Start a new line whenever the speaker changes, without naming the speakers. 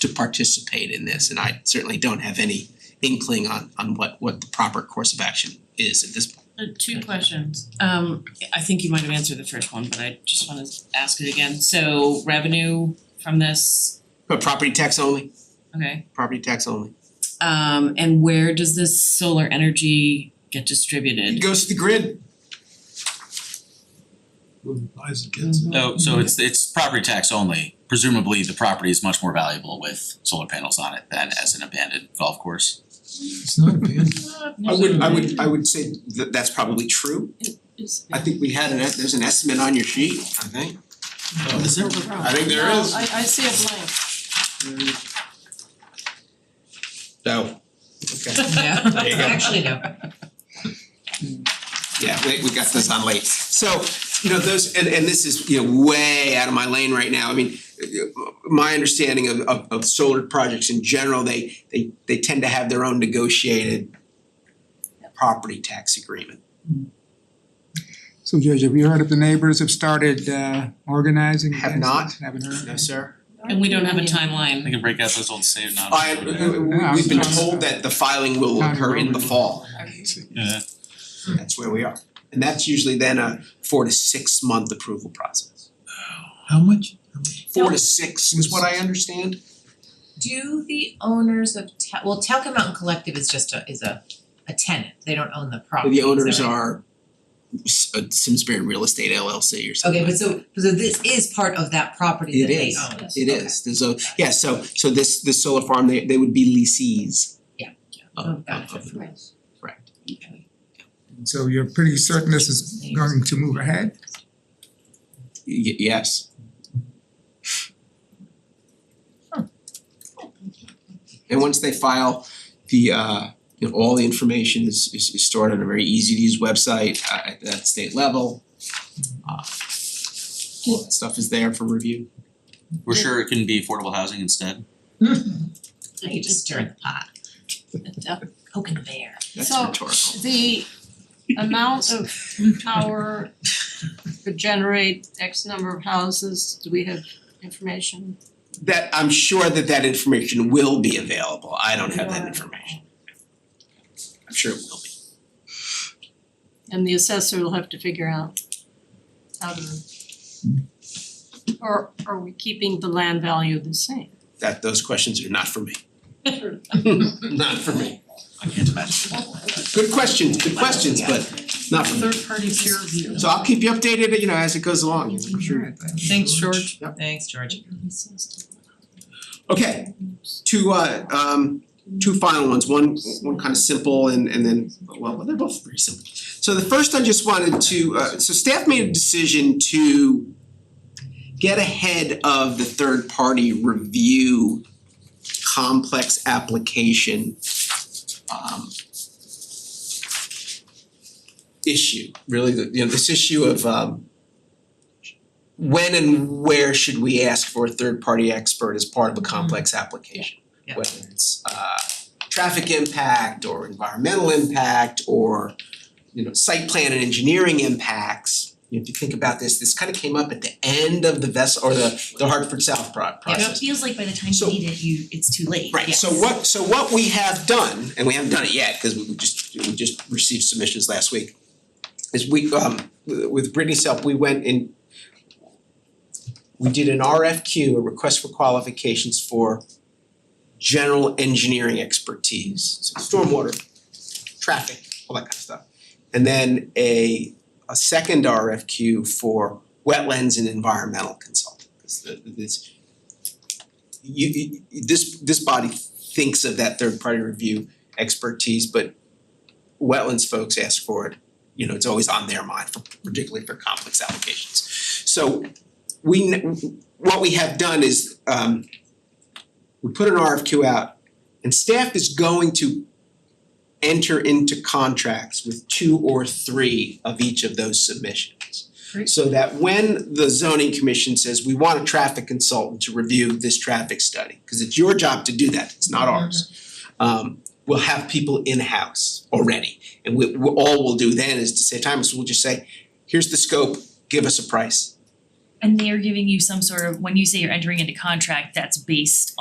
to participate in this, and I certainly don't have any inkling on on what what the proper course of action is at this point.
Uh, two questions. Um, I think you might have answered the first one, but I just wanna ask it again. So revenue from this,
But property tax only,
okay.
property tax only.
Um, and where does this solar energy get
It
distributed?
goes to the grid.
Who buys it gets it.
No, so it's it's property tax only. Presumably, the property is much more valuable with solar panels on it than as an abandoned golf course.
It's not abandoned.
I would I would I would say that that's probably true. I think we had an, es- there's an estimate on your sheet, I think.
Is there?
I think there is.
I I see a blank.
No. Okay,
Yeah.
There you go.
Actually, no.
yeah, we we got this on late. So, you know, those, and and this is, you know, way out of my lane right now. I mean, my understanding of of of solar projects in general, they they they tend to have their own negotiated property tax agreement.
So Judge, have you heard if the neighbors have started uh organizing
Have
against
not.
this? Haven't heard.
No, sir?
And we don't have a timeline.
I can break out those old save now.
I
Yeah,
we've been told that the filing will occur in the fall.
Yeah,
That's where we are. And that's usually then a four to six month approval process.
How much? How much?
Four to six is what I understand.
Do the owners of Ta- well, Talcum Mountain Collective is just a is a a tenant, they don't own the property,
The
is that
owners
right?
are S- uh, Simsbury Real Estate LLC or something
Okay, but
like that.
so so this is part of that property
It
that they
is.
own.
It is, there's a, yeah, so so this this solar farm, they they would be leasees.
Yeah.
Of of
Gotcha.
of the- correct.
And So you're pretty certain this is going to move ahead?
Y- yes. And once they file, the uh, you know, all the information is is is stored on a very easy to use website uh, at that state level. Uh, All that stuff is there for review.
we're sure it can be affordable housing instead.
Now you just stir the pot. Poking the bear.
That's
So-
rhetorical.
The amount of power could generate X number of houses, do we have information?
That I'm sure that that information will be available. I don't have that information. I'm sure it will be.
And the assessor will have to figure out how to. Or are we keeping the land value the same?
That those questions are not for me.
Sure.
Not for me.
I can't imagine.
Good questions, good questions, but not for me.
Third party peer review.
So I'll keep you updated, you know, as it goes along, you know, I'm sure.
Thanks, George.
Thanks, George.
Okay, two uh um two final ones, one one kind of simple and and then, well, they're both pretty simple. So the first I just wanted to, uh so staff made a decision to get ahead of the third party review complex application um issue, really, the you know, this issue of um when and where should we ask for a third party expert as part of
Mm-hmm.
a complex application?
Yeah.
Whether it's uh traffic impact or environmental impact or you know, site plan and engineering impacts. If you think about this, this kind of came up at the end of the vessel or the the Hartford South pro- process.
It feels like by the time
So-
you need it, you, it's too late,
Right, so
yes.
what, so what we have done, and we haven't done it yet, cause we we just, we just received submissions last week, is we, um, with Brittany's help, we went and we did an RFQ, a request for qualifications for general engineering expertise, so stormwater, traffic, all that kind of stuff. And then a, a second RFQ for wetlands and environmental consulting, 'cause the- this, you you- you- this this body thinks of that third party review expertise, but wetlands folks ask for it, you know, it's always on their mind for particularly for complex applications. So we kn- what we have done is um we put an RFQ out and staff is going to enter into contracts with two or three of each of those submissions.
Great.
So that when the zoning commission says, we want a traffic consultant to review this traffic study, cause it's your job to do that, it's not ours. Um we'll have people in-house already. And we we- all we'll do then is to say, Thomas, we'll just say, here's the scope, give us a price.
And they are giving you some sort of, when you say you're entering into contract, that's based